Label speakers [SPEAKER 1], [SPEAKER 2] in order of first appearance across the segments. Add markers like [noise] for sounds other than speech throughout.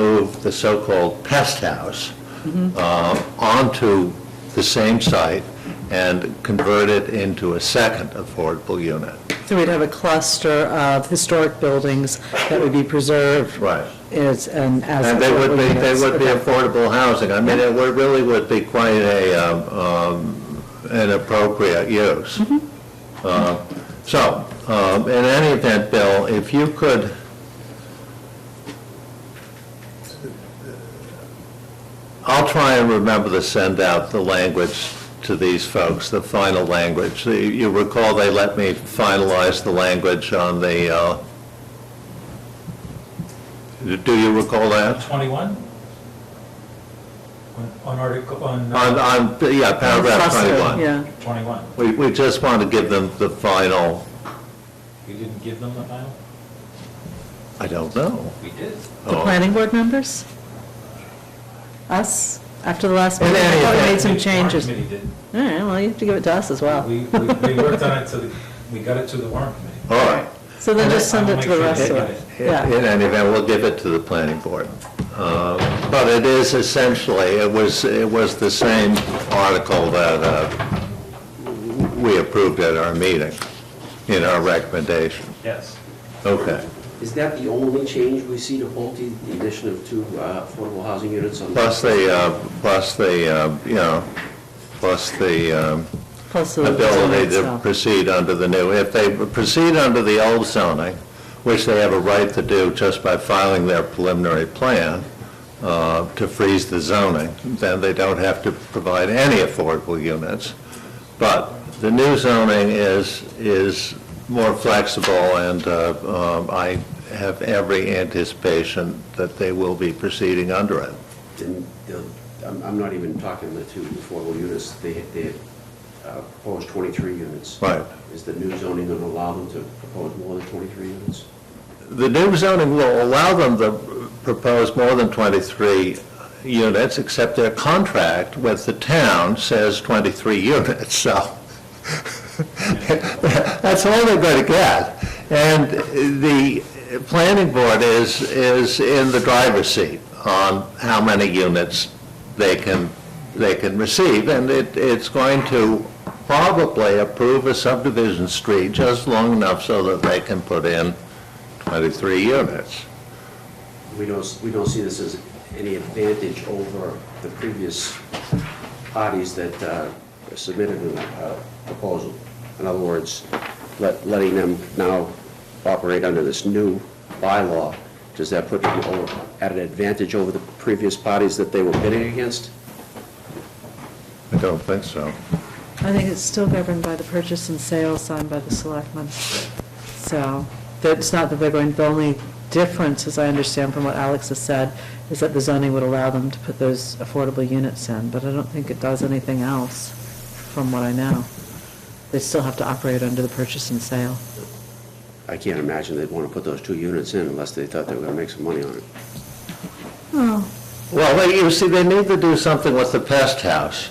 [SPEAKER 1] move the so-called pest house uh, onto the same site and convert it into a second affordable unit.
[SPEAKER 2] So we'd have a cluster of historic buildings that would be preserved.
[SPEAKER 1] Right.
[SPEAKER 2] As, and as.
[SPEAKER 1] And they would be, they would be
[SPEAKER 2] affordable units.
[SPEAKER 1] affordable housing. I mean, it would- really would be quite a, um, um, an appropriate use. Uh, So, um, in any event, Bill, if you could, I'll try and remember to send out the language to these folks, the final language. You- You recall they let me finalize the language on the, uh, do you recall that?
[SPEAKER 3] 21? On- On article, on
[SPEAKER 1] On,
[SPEAKER 3] uh,
[SPEAKER 1] on, yeah, paragraph
[SPEAKER 2] Cluster,
[SPEAKER 1] 21.
[SPEAKER 3] Um,
[SPEAKER 2] Yeah.
[SPEAKER 3] 21.
[SPEAKER 1] We, we just want to give them the final,
[SPEAKER 3] We didn't give them the final?
[SPEAKER 1] I don't know.
[SPEAKER 3] We did.
[SPEAKER 2] The
[SPEAKER 1] Oh.
[SPEAKER 2] planning board members? Us, after the last
[SPEAKER 1] In
[SPEAKER 2] meeting,
[SPEAKER 1] any
[SPEAKER 2] we
[SPEAKER 1] event.
[SPEAKER 2] made some
[SPEAKER 3] Our
[SPEAKER 2] changes. All
[SPEAKER 3] committee did.
[SPEAKER 2] right, well, you have to give it to us as well.
[SPEAKER 3] We, we we worked on it to, the- we got it to the warrant committee.
[SPEAKER 1] All right.
[SPEAKER 2] So then just send it to the rest of us.
[SPEAKER 1] In
[SPEAKER 2] Yeah,
[SPEAKER 1] in any event, we'll give it to the planning board. Uh, But it is essentially, it was, it was the same article that uh, we approved at our meeting, in our recommendation.
[SPEAKER 3] Yes.
[SPEAKER 1] Okay.
[SPEAKER 4] Is that the only change we see to Pulte, the addition of two uh, affordable housing units on?
[SPEAKER 1] Plus the, uh, plus the, uh, you know, plus the um,
[SPEAKER 2] plus the zoning
[SPEAKER 1] ability to
[SPEAKER 2] itself.
[SPEAKER 1] proceed under the new. If they proceed under the old zoning, which they have a right to do just by filing their preliminary plan uh, to freeze the zoning, then they don't have to provide any affordable units. But the new zoning is, is more flexible, and uh, um, I have every anticipation that they will be proceeding under it.
[SPEAKER 4] And the- I'm I'm not even talking the two affordable units, they they uh, proposed 23 units.
[SPEAKER 1] Right.
[SPEAKER 4] Is the new zoning going to allow them to propose more than 23 units?
[SPEAKER 1] The new zoning will allow them to propose more than 23 units, except their contract with the town says 23 [laughs] units, so that's all they're going to get. And the planning board is, is in the driver's seat on how many units they can, they can receive, and it, it's going to probably approve a subdivision street just long enough so that they can put in 23 units.
[SPEAKER 4] We don't, s- we don't see this as any advantage over the previous parties that uh, submitted a proposal. In other words, let- letting them now operate under this new bylaw, does that put them over- at an advantage over the previous parties that they were bidding against?
[SPEAKER 1] I don't think so.
[SPEAKER 2] I think it's still governed by the purchase and sale signed by the selectmen. So that's not the big one. The only difference, as I understand from what Alex has said, is that the zoning would allow them to put those affordable units in, but I don't think it does anything else from what I know. They still have to operate under the purchase and sale.
[SPEAKER 4] I can't imagine they'd want to put those two units in unless they thought they were going to make some money on it.
[SPEAKER 2] Oh.
[SPEAKER 1] Well, they- you see, they need to do something with the pest house.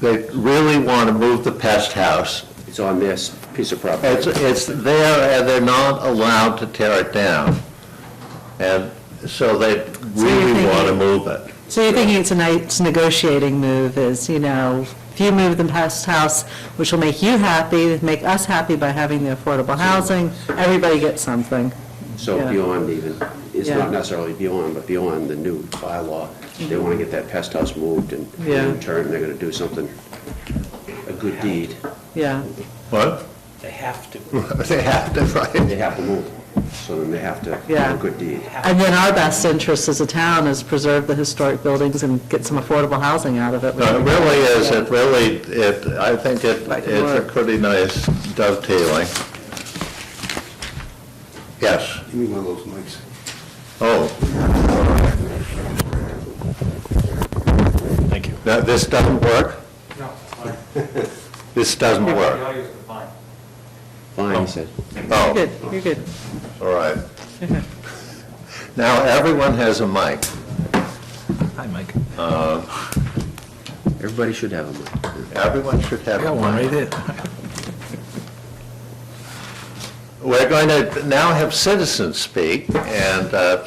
[SPEAKER 1] They really want to move the pest house.
[SPEAKER 4] It's on this piece of property.
[SPEAKER 1] It's, it's there, and they're not allowed to tear it down. And so they really
[SPEAKER 2] thinking-
[SPEAKER 1] want to move it.
[SPEAKER 2] So you're thinking it's a nice negotiating move is, you know, if you move the past house, which will make you happy, make us happy by having the affordable housing, everybody gets something.
[SPEAKER 4] So
[SPEAKER 2] Yeah.
[SPEAKER 4] beyond even, it's
[SPEAKER 2] Yeah. Mhm.
[SPEAKER 4] not necessarily beyond, but beyond the new bylaw, they want to get that pest house moved, and
[SPEAKER 2] Yeah.
[SPEAKER 4] in turn, they're going to do something, a good deed.
[SPEAKER 2] Yeah,
[SPEAKER 1] What?
[SPEAKER 5] They have to.
[SPEAKER 1] [laughs] They have to,
[SPEAKER 4] They
[SPEAKER 1] right?
[SPEAKER 4] have to move, so then they have to do
[SPEAKER 2] Yeah.
[SPEAKER 4] a good deed.
[SPEAKER 2] and then our best interest as a town is preserve the historic buildings and get some affordable housing out of it.
[SPEAKER 1] No, It really is, it really, it, I think it,
[SPEAKER 2] Like
[SPEAKER 1] it's a
[SPEAKER 2] work.
[SPEAKER 1] pretty nice dovetailing. Yes.
[SPEAKER 6] Give me one of those mics.
[SPEAKER 1] Oh. Thank you. This doesn't work?
[SPEAKER 3] No,
[SPEAKER 1] This doesn't work?
[SPEAKER 3] audio's fine.
[SPEAKER 4] Fine,
[SPEAKER 2] Oh.
[SPEAKER 4] he said.
[SPEAKER 2] You're good,
[SPEAKER 1] Oh,
[SPEAKER 2] you're good.
[SPEAKER 1] all right. [laughs] Now, everyone has a mic.
[SPEAKER 5] Hi, Mike.
[SPEAKER 4] Everybody should have a mic.
[SPEAKER 1] Everyone should have a mic.
[SPEAKER 5] there.
[SPEAKER 1] We're going to now have citizens speak, and uh,